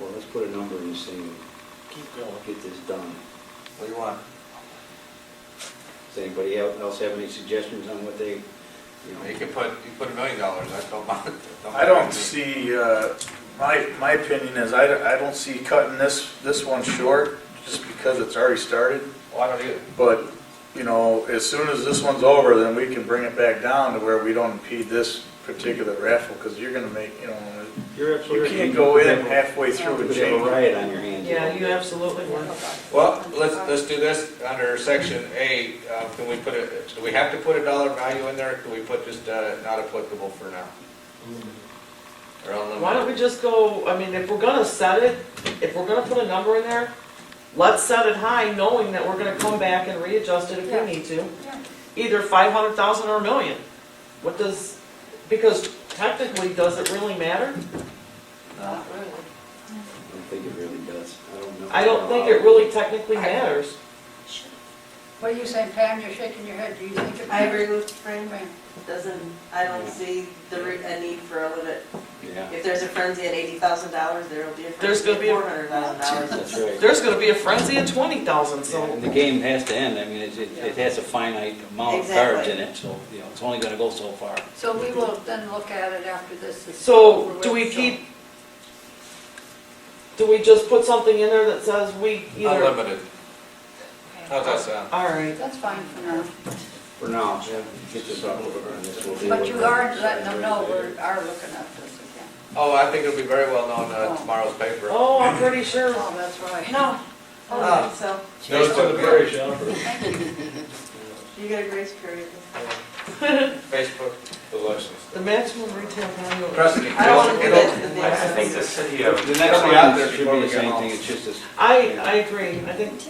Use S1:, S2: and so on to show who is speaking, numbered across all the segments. S1: Well, let's put a number in this thing
S2: Keep going.
S1: and get this done.
S2: What do you want?
S1: Does anybody el- else have any suggestions on what they, you
S2: You
S1: know?
S2: can put, you put a million dollars, I don't mind.
S3: I don't see, uh, my, my opinion is I don't, I don't see cutting this, this one short just because it's already started.
S2: Well, Oh, I don't either.
S3: But, you know, as soon as this one's over, then we can bring it back down to where we don't impede this particular raffle because you're gonna make, you know,
S1: You're
S3: you
S1: absolutely-
S3: can't go in halfway through
S1: You
S3: and
S1: could have a
S3: change.
S1: riot on your hands.
S4: Yeah, you absolutely would.
S2: Well, let's, let's do this, under section A, uh, can we put a, do we have to put a dollar value in there, or can we put just, uh, not applicable for now? Or
S4: Why don't
S2: unlimited?
S4: we just go, I mean, if we're gonna set it, if we're gonna put a number in there, let's set it high, knowing that we're gonna come back and readjust it if
S5: Yeah.
S4: we need to.
S5: Yeah.
S4: Either five hundred thousand or a million. What does, because technically, does it really matter?
S3: No.
S1: I don't think it really does. I don't know.
S4: I don't think it really technically
S5: I-
S4: matters.
S5: What are you saying, Pam? You're shaking your head. Do you think it?
S6: I agree with Frank,
S5: Pam,
S6: doesn't, I don't see the, re- a need for a limit.
S1: Yeah,
S6: If there's a frenzy at eighty thousand dollars, there'll be a
S4: There's
S6: frenzy
S4: gonna
S6: at
S4: be a-
S6: four hundred thousand dollars.
S1: that's right.
S4: There's gonna be a frenzy at twenty thousand, so.
S1: And the game has to end, I mean, it, it it has a finite amount of cards in it, so, you know, it's only gonna go so far.
S5: So we will then look at it after this is. over
S4: So,
S5: with,
S4: do we
S5: so-
S4: keep, do we just put something in there that says we either?
S2: Unlimited. How's that sound?
S4: All right,
S5: That's fine for now.
S1: For now, get this off of our list. We'll deal
S5: But
S1: with
S5: you
S1: it.
S5: are letting them know we are looking at this again.
S2: Oh, I think it'll be very well known, uh, tomorrow's paper.
S4: oh, I'm pretty sure,
S5: Oh, that's right.
S4: no, Oh,
S6: I don't think so.
S2: Those to the parish,
S6: You get a grace period.
S2: Facebook elections.
S4: the maximum retail value. of-
S2: Trust me,
S6: I don't wanna
S2: it'll,
S6: do
S2: it'll,
S6: that to the
S7: I think the city
S1: The
S7: of,
S1: next
S2: It'll be out there
S1: line should
S2: before
S1: be
S2: we
S1: the
S2: get
S1: same
S2: home.
S1: thing, it's just this,
S4: I, I agree, I think,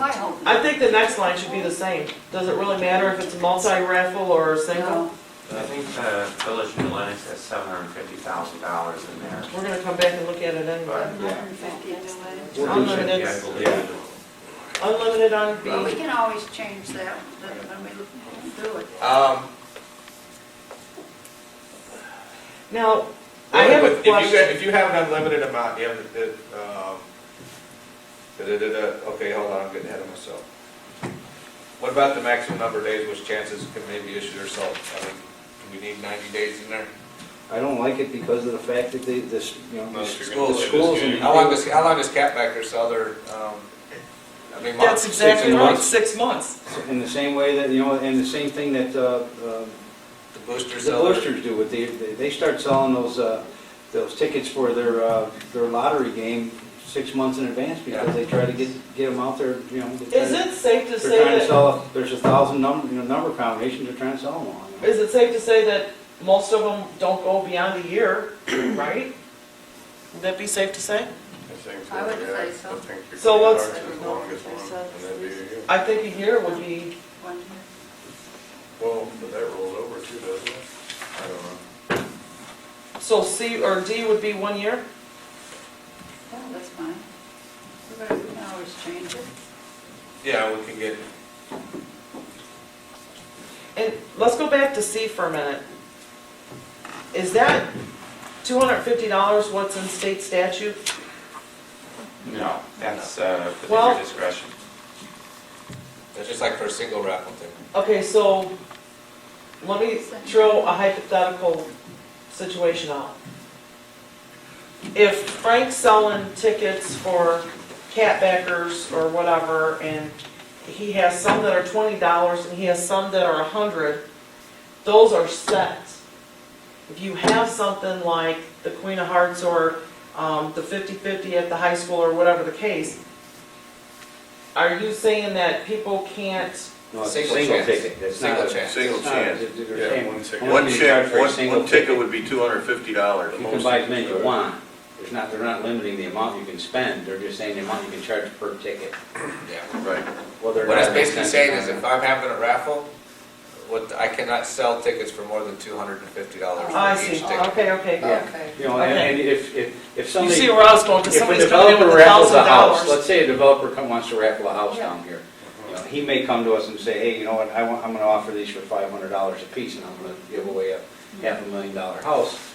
S5: I hope.
S4: I think the next line should be the same. Does it really matter if it's a multi-raffle or a single?
S5: No.
S7: I think the village of New Lenox has seven hundred and fifty thousand dollars in there.
S4: We're gonna come back and look at it anyway.
S7: Yeah, I
S4: Unlimited,
S7: believe it.
S4: unlimited on
S5: Well, we
S4: B,
S5: can always change that when we look through it.
S2: um,
S4: now, I have
S2: But
S4: a
S2: if you got-
S4: question.
S2: If you have an unlimited amount, you have the, um, da-da-da-da, okay, hold on, I'm getting ahead of myself. What about the maximum number of days which chances can maybe issued or sold? I mean, do we need ninety days in there?
S1: I don't like it because of the fact that they, this, you know, the
S8: Unless you're
S1: schools.
S8: gonna
S1: the
S8: play this
S1: schools
S8: game.
S1: and-
S2: How long does, how long does Cat back there sell their, um, I mean, months?
S4: That's exactly
S2: Six
S4: right,
S2: months?
S4: six months.
S1: In the same way that, you know, and the same thing that, uh, uh,
S2: The boosters
S1: the
S2: sell their-
S1: Oysters do, what they, they they start selling those, uh, those tickets for their, uh, their lottery game six months in advance because
S2: Yeah.
S1: they try to get, get them out there, you know. they try
S4: Is
S1: to-
S4: it safe to say
S1: They're trying to
S4: that,
S1: sell, there's a thousand number, you know, number combinations, they're trying to sell them all.
S4: is it safe to say that most of them don't go beyond a year, right? Would that be safe to say?
S5: I would say so.
S4: So what's-
S8: Well,
S4: I think a year would be,
S5: One here.
S8: but that rolls over too, doesn't it? I don't know.
S4: so C or D would be one year?
S5: Yeah, that's fine. We better- We can always change it.
S2: Yeah, we can get,
S4: And let's go back to C for a minute. Is that two hundred and fifty dollars what's in state statute?
S7: No, that's, uh, for
S4: Well-
S7: your discretion.
S2: that's just like for a single raffle thing.
S4: Okay, so let me throw a hypothetical situation out. If Frank's selling tickets for catbackers or whatever, and he has some that are twenty dollars and he has some that are a hundred, those are set. If you have something like the Queen of Hearts or, um, the fifty-fifty at the high school or whatever the case, are you saying that people can't
S1: No, it's a
S2: Single
S1: single
S2: chance.
S1: ticket, that's not
S2: Single
S1: a-
S2: chance.
S1: it's
S8: Single
S1: not a-
S8: chance.
S1: they're- they're
S8: Yeah,
S1: saying
S8: one ticket.
S1: only
S8: One
S1: you
S8: chance,
S1: charge for a
S8: one,
S1: single
S8: one ticket would be two hundred and fifty dollars.
S1: You can buy as many as you want. There's not, they're not limiting the amount you can spend, they're just saying the amount you can charge per ticket.
S2: Yeah.
S8: Right.
S1: Whether or
S2: What it's
S1: not
S2: basically
S1: that's-
S2: saying is if I'm having a raffle, what, I cannot sell tickets for more than two hundred and fifty dollars
S4: Oh, I
S2: for
S4: see,
S2: each ticket.
S4: okay, okay.
S1: Yeah.
S5: Okay.
S1: You know, and- and if, if, if
S4: You
S1: somebody.
S4: see where I was going, because
S1: If a
S4: somebody's coming in
S1: developer
S4: with a
S1: raffles
S4: thousand
S1: a house,
S4: dollars.
S1: let's say a developer come- wants to raffle a house
S5: Yeah.
S1: down here. You know, He may come to us and say, hey, you know what, I want, I'm gonna offer these for five hundred dollars a piece and I'm gonna give away a half a million dollar house.